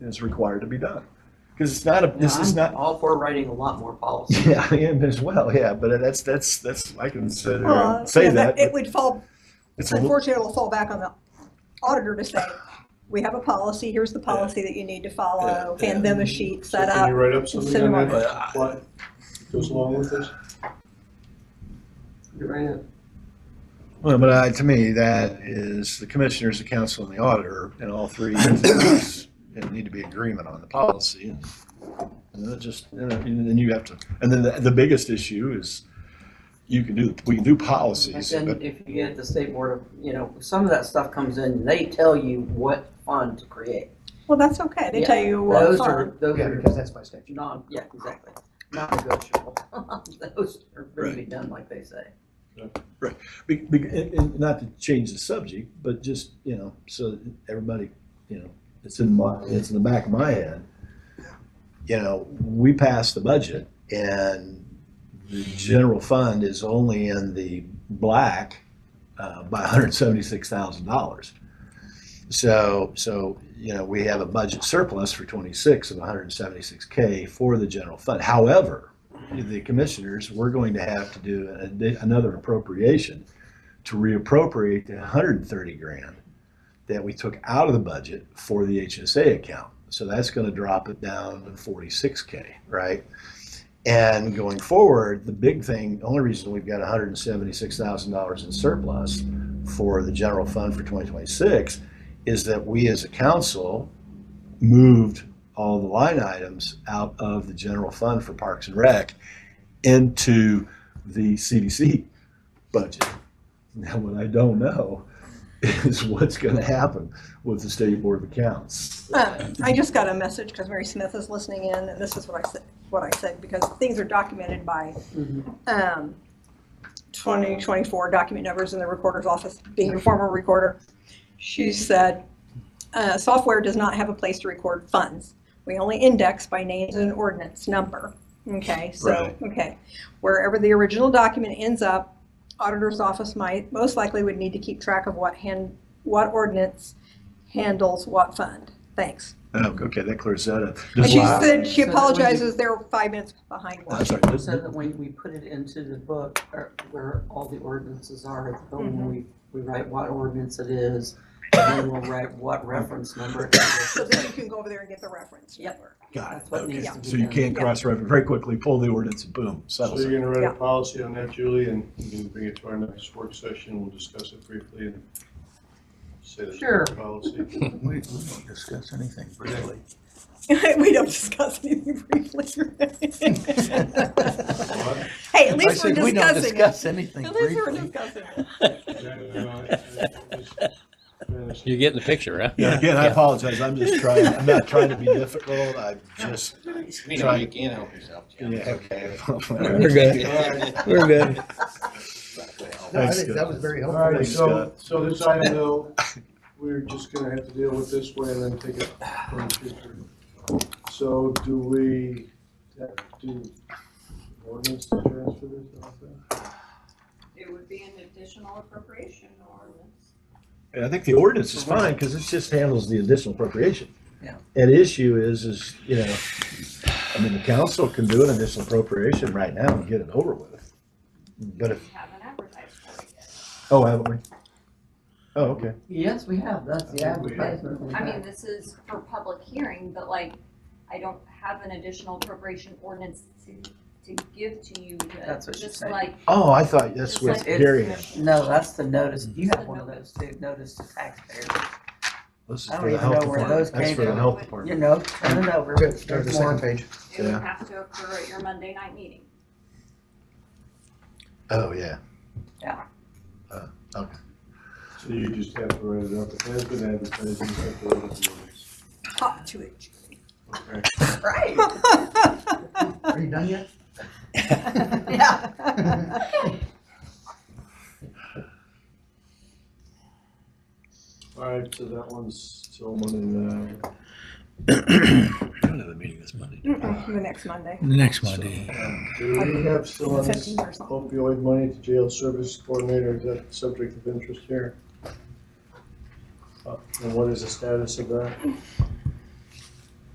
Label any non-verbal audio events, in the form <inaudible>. is required to be done. Because it's not a, this is I'm not, All for writing a lot more <laughs> policy. yeah, I am as well, yeah, but that's, that's, that's, I can sit here Well, and uh, say yeah, but that. It but would fall, It's a little- unfortunately, it'll fall back on the auditor to say, we have a policy, here's the policy that you need to follow, Yeah, uh, Uh, hand them a sheet So set Can you up. write up something on cinema. that, what goes along with this? You're right. Well, but I, to me, that is the commissioners, the council, and the auditor, and all three entities need to be agreement on the policy. And then it just, and then you have to, and then the, the biggest issue is, you can do, we can do But policies, then but, if you get the state board of, you know, some of that stuff comes in, they tell you what fund to create. Well, that's okay, they tell you what Those fund. are, those Yeah, are because that's by statute. non, yeah, exactly, non-negotiable. <laughs> Those are going to be done like they say. be- be- and, and not to change the subject, but just, you know, so that everybody, you know, it's in my, it's in the back of my head. You know, we passed the budget and the general fund is only in the black uh, by $176,000. So, so, you know, we have a budget surplus for 26 of 176K for the general fund. However, the commissioners, we're going to have to do a- another appropriation to reappropriate the 130 grand that we took out of the budget for the HSA account. So that's going to drop it down to 46K, right? And going forward, the big thing, the only reason we've got $176,000 in surplus for the general fund for 2026 is that we as a council moved all the line items out of the general fund for Parks and Rec into the CDC budget. Now, what I don't know is what's going to happen with the State Board of Accounts. Uh, I just got a message, because Mary Smith is listening in, and this is what I said, what I said, because things are documented by um, 2024 document numbers in the recorder's office, being a former recorder. She said, uh, software does not have a place to record funds. We only index by names and ordinance number. Okay, so, Right. okay. Wherever the original document ends up, auditor's office might, most likely would need to keep track of what hand, what ordinance handles what fund. Thanks. Oh, Okay, that clears that up. And Does- she Wow. said, she So that when you- apologizes, they're five minutes behind Oh, I'm <laughs> one. sorry. does- So that when we put it into the book, or where all the ordinances are, at the Mhm. home, we, we write what ordinance it is, and then we'll write what reference number it is. So then you can go over there and get the reference Yep. number. Got it, That's what okay. needs to be So you done. can't Yeah. cross-reference, very quickly pull the ordinance, boom, So settles it. you're gonna write Yeah. a policy on that, Julie, and you can bring it to our next work session, we'll discuss it briefly and say that's Sure. our policy. We, we don't discuss anything really. <laughs> We don't discuss anything briefly. <laughs> <laughs> What? Hey, at I least we're said, we don't discussing it. discuss anything <laughs> At least we're briefly. discussing it. Yeah, no, I- I just- I You're getting the picture, huh? Yeah, again, I apologize, I'm just trying, I'm not trying to be difficult, I'm just You know, you can't help yourself, Jim. Yeah, okay. Thanks, We're good. We're <laughs> good. No, I think that was Scott. very All helpful. right, Thanks, so, Scott. so this item though, we're just gonna have to deal with this way and then take it from the future. So do we, have to do ordinance to transfer this off then? It would be an additional appropriation ordinance. And I think the ordinance is fine, because it just handles the additional appropriation. Yeah. And the issue is, is, you know, I mean, the council can do an additional appropriation right now and get it over with. But We if, haven't advertised for it yet. oh, haven't we? Oh, okay. Yes, we have, that's the I think we have. advertisement. we I have. mean, this is for public hearing, but like, I don't have an additional appropriation ordinance to, to give to you. to- That's what she's just saying. like- Oh, I thought that's just what like the Gary had. commission. No, that's the notice, you have one of those too, notice to taxpayers, This is I don't for the even health know where department. those That's came for the from. health you department. know, turn it over. Good, go to the There's second more. page. It would Yeah. have to occur at your Monday night meeting. Oh, yeah. So you just have to write it up, it has been advertised, you just have to write it up. Hot to it. Okay. Right, <laughs> Are you done <laughs> yet? yeah. All right, so that one's still uh, Monday night. I don't have a meeting this Monday. Mm-mm, The next Monday. Next Monday. Do we have still on this 15 or something. opioid money to jail service coordinator, is that subject of interest here? Uh, And what is the status of that?